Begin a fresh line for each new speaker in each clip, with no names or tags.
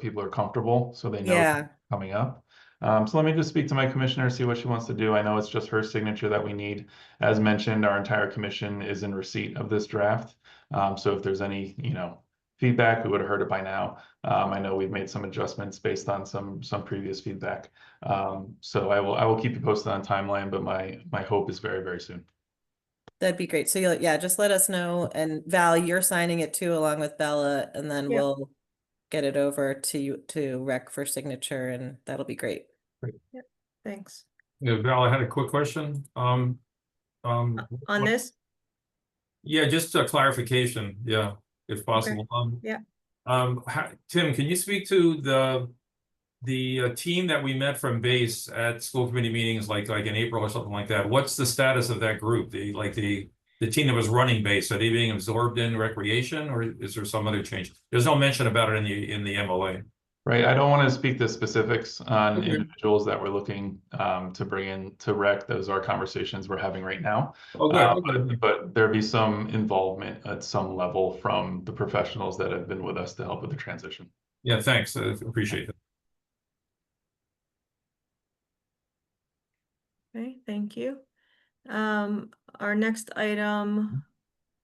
people are comfortable, so they know it's
Yeah,
coming up. Um, so let me just speak to my commissioner, see what she wants to do. I know it's just her signature that we need. As mentioned, our entire commission is in receipt of this draft. Um, so if there's any, you know, feedback, we would have heard it by now. Um, I know we've made some adjustments based on some, some previous feedback. Um, so I will, I will keep you posted on timeline, but my, my hope is very, very soon.
that'd be great. So you'll, yeah, just let us know and Val, you're signing it too along with Bella and then
Yeah.
we'll get it over to you to rec for signature and that'll be great.
Thanks.
Yeah, Val, I had a quick question, um, um,
Uh, On
what-
this,
yeah, just a clarification, yeah, if possible, um.
yeah.
Um, ha- Tim, can you speak to the, the uh, team that we met from base at school committee meetings, like, like in April or something like that? What's the status of that group, the, like, the, the team that was running base, are they being absorbed in recreation, or is there some other change? There's no mention about it in the, in the MLA.
Right, I don't want to speak the specifics on
Mhm.
individuals that we're looking um to bring in to rec. Those are conversations we're having right now.
Oh,
Uh,
good, okay.
but, but there be some involvement at some level from the professionals that have been with us to help with the transition.
yeah, thanks, I appreciate it.
okay, thank you. Um, our next item,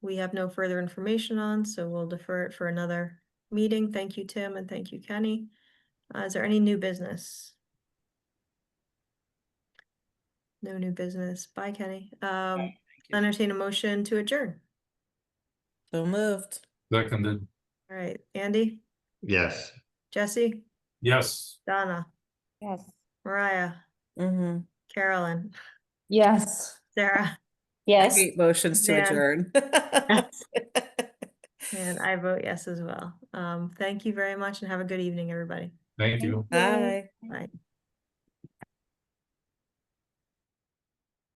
we have no further information on, so we'll defer it for another meeting. Thank you, Tim, and thank you, Kenny. Uh, is there any new business? No new business. Bye, Kenny. Um, entertain a motion to adjourn.
So moved.
Seconded,
All right, Andy,
Yes.
Jesse,
yes.
Donna,
Yes.
Mariah,
Mm-hmm.
Carolyn,
Yes.
Sarah,
Yes.
Motions to
Yeah.
adjourn.
and I vote yes as well. Um, thank you very much and have a good evening, everybody.
Thank you.
Bye.
Bye.